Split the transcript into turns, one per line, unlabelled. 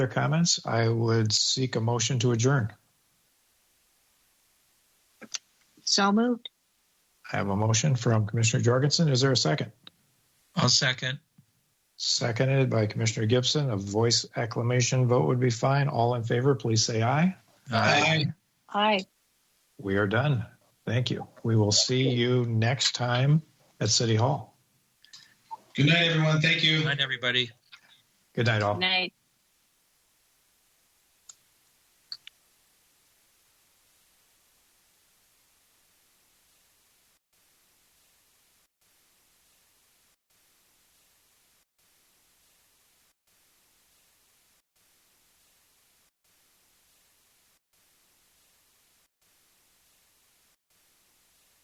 Other comments? I would seek a motion to adjourn.
So moved.
I have a motion from Commissioner Jorgensen. Is there a second?
I'll second.
Seconded by Commissioner Gibson. A voice acclamation vote would be fine. All in favor, please say aye.
Aye.
We are done. Thank you. We will see you next time at City Hall.
Good night, everyone. Thank you.
Good night, everybody.
Good night, all.
Night.